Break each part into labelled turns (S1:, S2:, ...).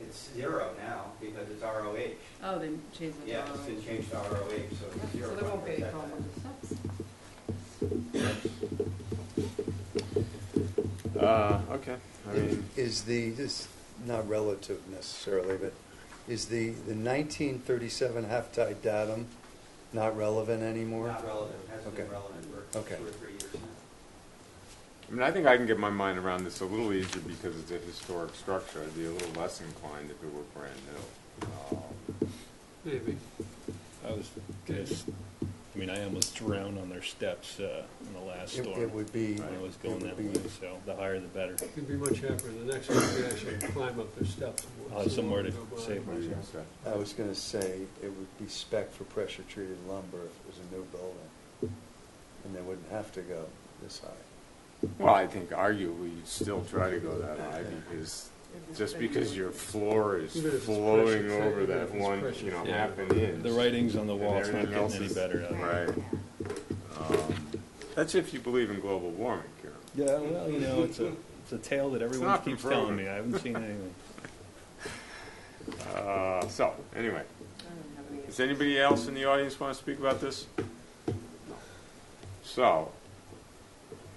S1: it's zero now because it's ROH.
S2: Oh, they changed the.
S1: Yeah, it's been changed to ROH, so it's zero.
S2: So there won't be any
S1: percent.
S2: problem with the steps.
S3: Uh, okay, I mean,
S4: Is the, this, not relative necessarily, but is the, the nineteen thirty-seven half-tide datum not relevant anymore?
S1: Not relevant, hasn't been
S4: Okay.
S1: relevant for
S4: Okay.
S1: two or three years now.
S3: I mean, I think I can get my mind around this a little easier because it's a historic structure. I'd be a little less inclined if it were brand new. Um,
S5: Maybe.
S6: I was just, I mean, I almost drowned on their steps uh, in the last
S4: It,
S6: storm.
S4: it would be.
S6: When I was
S4: it
S6: going
S4: would
S6: that
S4: be-
S6: way, so the higher the better.
S5: It'd be much happier the next one, we actually climb up the steps. and
S6: I'll have
S5: see
S6: Oh, somewhere
S5: what
S6: to
S5: we go by.
S6: save
S3: what do you
S6: myself.
S3: say?
S4: I was gonna say, it would be spec for pressure-treated lumber if it was a new building. And they wouldn't have to go this high.
S3: Well, I think arguably you'd still try to go that high because, just because your floor is
S5: Even if it's
S3: flowing
S5: pressure,
S3: over
S5: even
S3: that
S5: if it's
S3: one,
S5: pressure.
S3: you know,
S6: Yeah.
S3: half an inch.
S6: The writing's on the
S3: and
S6: wall, it's not
S3: everything else
S6: getting any
S3: is-
S6: better. out of it.
S3: Right. Um, That's if you believe in global warming, Karen.
S6: Yeah, well, you know, it's a, it's a tale that everyone
S3: not been
S6: keeps telling
S3: proven.
S6: me. I haven't seen anything.
S3: Uh, so, anyway,
S2: I don't have any.
S3: does anybody else in the audience want to speak about this? So,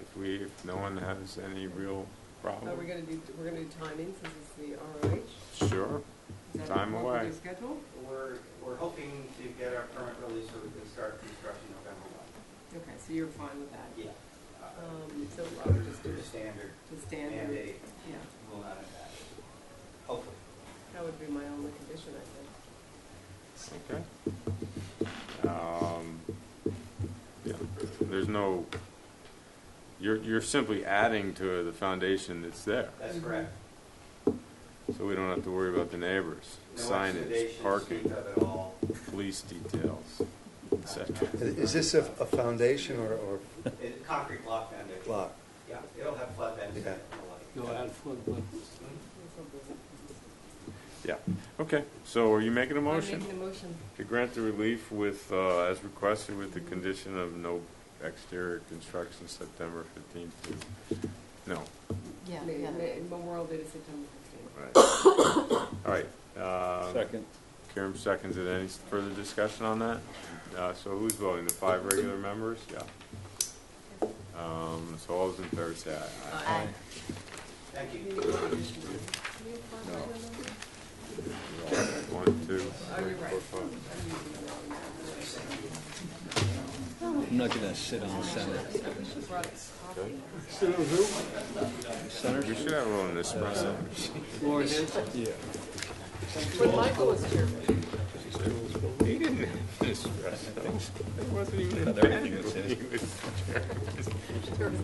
S3: if we, if no one has any real
S7: Are we
S3: problem,
S7: gonna do, we're gonna do timing since it's the ROH?
S3: sure.
S7: Is that
S3: Time
S7: what we're
S3: away.
S7: gonna schedule?
S1: We're, we're hoping to get our permit released so we can start construction November one.
S7: Okay, so you're fine with that?
S1: Yeah. Uh,
S7: Um, so I would just do
S1: The
S7: the
S1: standard
S7: the standard,
S1: mandate
S7: yeah,
S1: will not impact, hopefully.
S7: that would be my only condition, I think.
S3: Okay. Um, yeah, There's no, you're, you're simply adding to the foundation that's there,
S1: That's
S7: Mhm.
S1: correct.
S3: so we don't have to worry about the neighbors,
S1: No
S3: signage,
S1: oxidation,
S3: parking,
S1: speak of it all.
S3: police details, et cetera.
S4: Is this a, a foundation or, or
S1: It- Concrete block foundation.
S4: block?
S1: Yeah, it'll have flood vents in it
S4: Yeah.
S1: and the like. Mm-hmm.
S5: You'll add flood buttons.
S3: Yeah, okay, so are you making a
S7: I'm
S3: motion?
S7: making a motion.
S3: To grant the relief with, uh, as requested with the condition of no exterior construction September fifteenth to, no,
S2: Yeah,
S7: May-
S2: yeah.
S7: May- Memorial Day to September fifteenth.
S3: right. All right, uh,
S6: Second.
S3: Karen seconds it. Any further discussion on that? Uh, so who's voting? The five regular members? Yeah. Um, so all those in favor say aye.
S2: Aye.
S1: Thank you.
S3: No. One, two, three, four, five.
S6: I'm not gonna sit on the center.
S5: Sit on who?
S3: We should have a little espresso.
S5: Laura Hanson?
S6: Yeah.
S7: When Michael was chairman.
S3: He didn't have an espresso. It wasn't even
S6: But everything was
S3: intended.
S6: his.
S3: He was-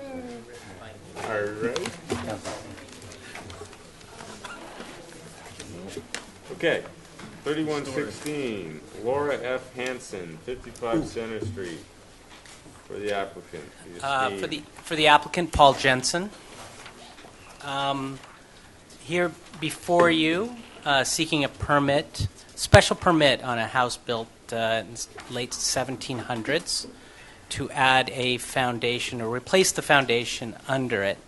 S3: All right. Okay, thirty-one sixteen, Laura F. Hanson, fifty-five Center Street, for the applicant. the
S8: Uh, For
S3: esteemed-
S8: the for the applicant, Paul Jensen. Um, Here before you, uh, seeking a permit, special permit on a house built uh, in s- late 1700s to add a foundation or replace the foundation under it.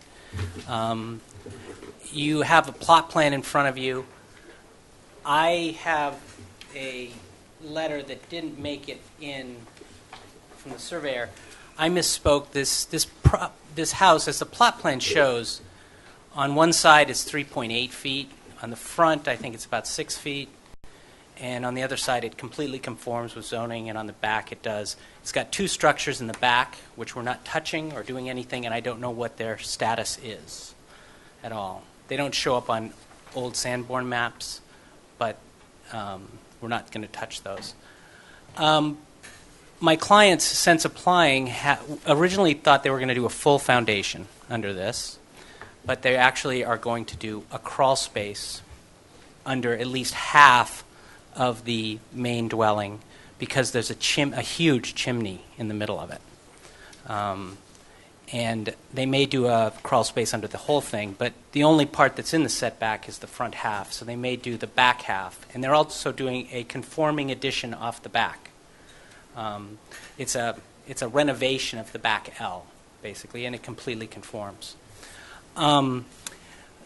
S8: Um, You have a plot plan in front of you. I have a letter that didn't make it in from the surveyor. I misspoke. This this pro, this house, as the plot plan shows, on one side it's 3.8 feet. On the front, I think it's about six feet, and on the other side, it completely conforms with zoning. And on the back, it does. It's got two structures in the back which we're not touching or doing anything, and I don't know what their status is at all. They don't show up on old Sanborn maps, but um, we're not going to touch those. Um, my clients, since applying, ha- originally thought they were going to do a full foundation under this, but they actually are going to do a crawl space under at least half of the main dwelling because there's a chim- a huge chimney in the middle of it. Um, and they may do a crawl space under the whole thing, but the only part that's in the setback is the front half, so they may do the back half. And they're also doing a conforming addition off the back. Um, It's a, it's a renovation of the back L, basically, and it completely conforms. Um,